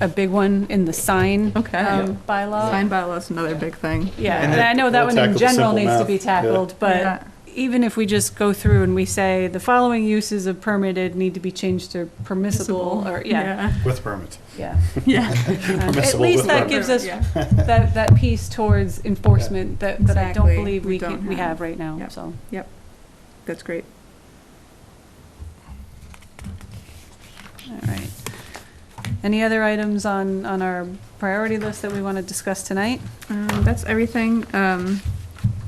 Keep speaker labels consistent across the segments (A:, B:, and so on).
A: a big one in the sign
B: Okay.
A: um, bylaw.
B: Sign bylaw is another big thing.
A: Yeah,
C: And
A: and
C: then
A: I know that
C: we'll
A: one
C: tackle
A: in
C: the
A: general
C: simple
A: needs to
C: math,
A: be
C: yeah.
A: tackled, but
B: Yeah.
A: even if we just go through and we say, the following uses of permitted need to be changed to permissible, or, yeah,
C: With permit.
A: yeah.
B: Yeah.
A: Um, At
C: Permissible
A: least
C: with
A: that
C: permit.
A: gives us
B: Yeah.
A: that, that piece towards enforcement that, that I don't
B: Exactly.
A: believe
B: We
A: we,
B: don't
A: can- we
B: have.
A: have right now,
B: Yep.
A: so.
B: That's great.
A: All right. Any other items on, on our priority list that we want to discuss tonight?
B: Um, that's everything. Um,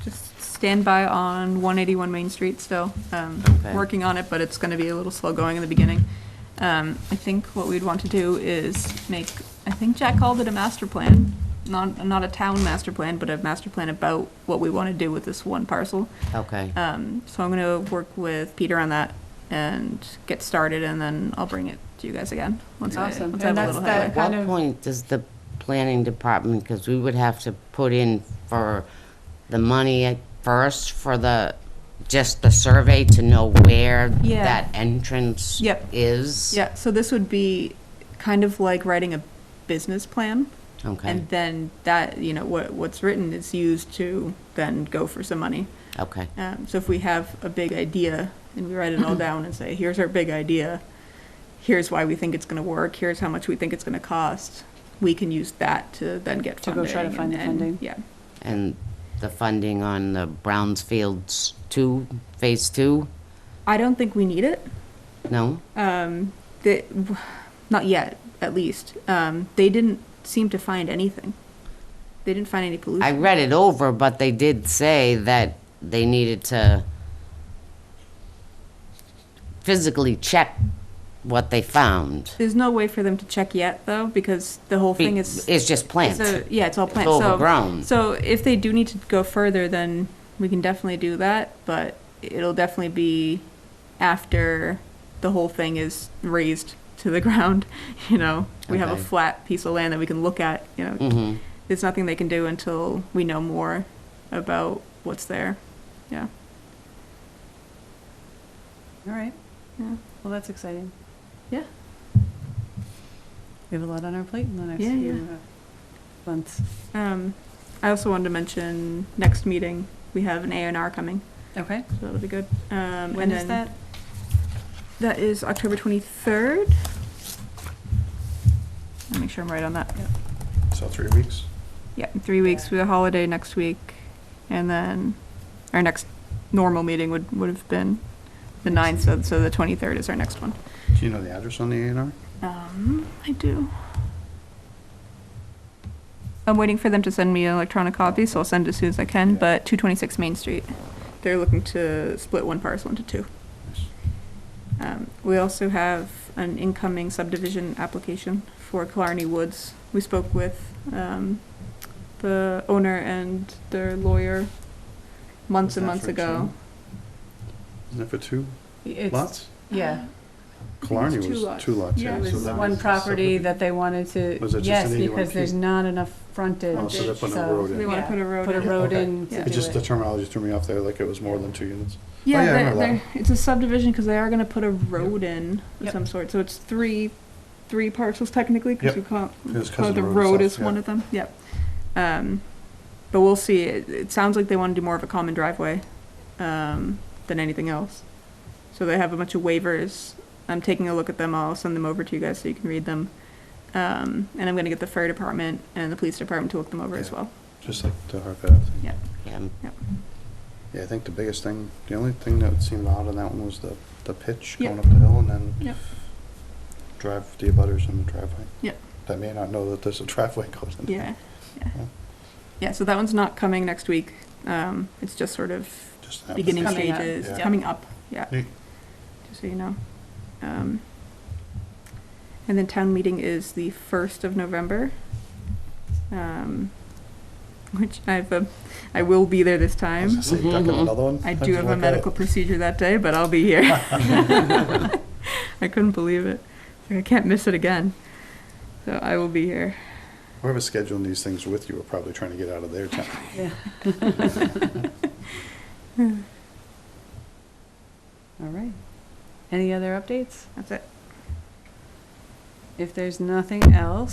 B: just stand by on one eighty-one Main Street still. Um,
A: Okay.
B: working on it, but it's gonna be a little slow going in the beginning. Um, I think what we'd want to do is make, I think Jack called it a master plan. Not, not a town master plan, but a master plan about what we wanna do with this one parcel.
D: Okay,
B: Um, so I'm gonna work with Peter on that and get started, and then I'll bring it to you guys again. once I-
A: Awesome.
B: once I
A: And
B: have a
A: that's
B: little
A: that-
D: at
B: headway.
D: what
A: kind of-
D: point does the planning department, because we would have to put in for the money at first for the, just the survey to know where
B: Yeah.
D: that entrance
B: Yep.
D: is?
B: Yeah, so this would be kind of like writing a business plan,
D: Okay,
B: and then that, you know, what, what's written is used to then go for some money.
D: okay,
B: Um, so if we have a big idea and we write it all down and say, here's our big idea, here's why we think it's going to work, here's how much we think it's going to cost, we can use that to then get
A: To
B: funding.
A: go try to find the
B: and-
A: funding.
B: Yeah.
D: and the funding on the Brownsfields two, phase two?
B: I don't think we need it.
D: No?
B: Um, they, not yet, at least. Um, they didn't seem to find anything. They didn't find any pollution.
D: I read it over, but they did say that they needed to physically check what they found.
B: There's no way for them to check yet, though, because the whole thing is.
D: It's just plants.
B: So, yeah, it's all plants. so-
D: overgrown.
B: So if they do need to go further, then we can definitely do that, but it'll definitely be after the whole thing is raised to the ground, you know? We have a
D: Okay.
B: flat piece of land that we can look at, you know?
D: Mhm.
B: There's nothing they can do until we know more about what's there, yeah.
A: All right.
B: Yeah.
A: Well, that's exciting.
B: Yeah.
A: We have a lot on our plate in the next
B: Yeah,
A: few uh, months.
B: Um, I also wanted to mention, next meeting, we have an A and R coming,
A: Okay.
B: so that'll be good. Um,
A: When
B: and
A: is
B: then-
A: that?
B: That is October 23rd. I'll make sure I'm right on that.
C: So three weeks.
B: Yeah, in three weeks, we have a holiday next week, and then our next normal meeting would, would have been the 9th, so, so the 23rd is our next one.
C: Do you know the address on the A and R?
B: Um, I do. I'm waiting for them to send me an electronic copy, so I'll send it as soon as I can,
C: Yeah.
B: but 226 Main Street. They're looking to split one parcel into two. Um, We also have an incoming subdivision application for Killarney Woods. We spoke with um, the owner and their lawyer months
C: Is
B: and
C: that
B: months
C: for
B: ago.
C: Isn't that for two
A: It's-
C: lots?
A: Yeah.
C: Killarney
B: two
C: was
B: lots.
C: two lots,
B: Yeah,
C: yeah.
A: It
B: it
C: so
A: was
C: that
A: one
C: was
A: property
C: subdivi-
A: that they wanted
C: Was it
A: to,
C: just
A: yes,
C: an 81
A: because there's
C: feet?
A: not enough frontage.
C: Oh, so they're putting a
A: so-
C: road
B: We
C: in.
B: want
A: Yeah.
B: to put a road
A: Put a
B: in.
A: road
C: Okay.
A: in
B: Yeah.
A: to
C: It just,
A: do
C: the
A: it.
C: terminology threw me off there, like it was more than two units.
B: Yeah,
C: Oh, yeah, I
B: they're,
C: remember that
B: they're, it's a subdivision because they are going to put a road in of
A: Yep.
B: some sort. So it's three, three parcels technically because
C: Yep.
B: we call,
C: Yeah, it's 'cause
B: call
C: of
B: the
C: the road
B: road
C: stuff,
B: as one
C: yeah.
B: of them. Yep. Um, but we'll see. It, it sounds like they want to do more of a common driveway um, than anything else. So they have a bunch of waivers. I'm taking a look at them. I'll send them over to you guys so you can read them. Um, and I'm going to get the fire department and the police department to look them over as
C: Yeah.
B: well.
C: Just like the hard path thing.
B: Yeah.
D: Yeah,
C: Yeah, I think the biggest thing, the only thing that seemed odd on that one was the, the pitch
B: Yep.
C: going up the hill and then
B: Yep.
C: drive the abutters in the driveway.
B: Yep.
C: That may not know that there's a driveway goes in.
B: Yeah, yeah.
C: Yeah.
B: Yeah, so that one's not coming next week. Um, it's just sort of
C: Just an
B: beginning
C: application.
A: Coming up,
B: stages,
C: yeah.
B: coming up, yeah,
C: Neat.
B: just so you know. Um, and then town meeting is the first of November. Um, which I have a, I will be there this
C: I
B: time.
C: was gonna say, duck on another one?
B: I
C: How'd
B: do
C: you
B: have a
C: look at it?
B: medical procedure that day, but I'll be here. I couldn't believe it. I can't miss it again. So I will be here.
C: Whoever's scheduling these things with you are probably trying to get out of their town.
A: Yeah. All right. Any other updates?
B: That's it.
A: If there's nothing else,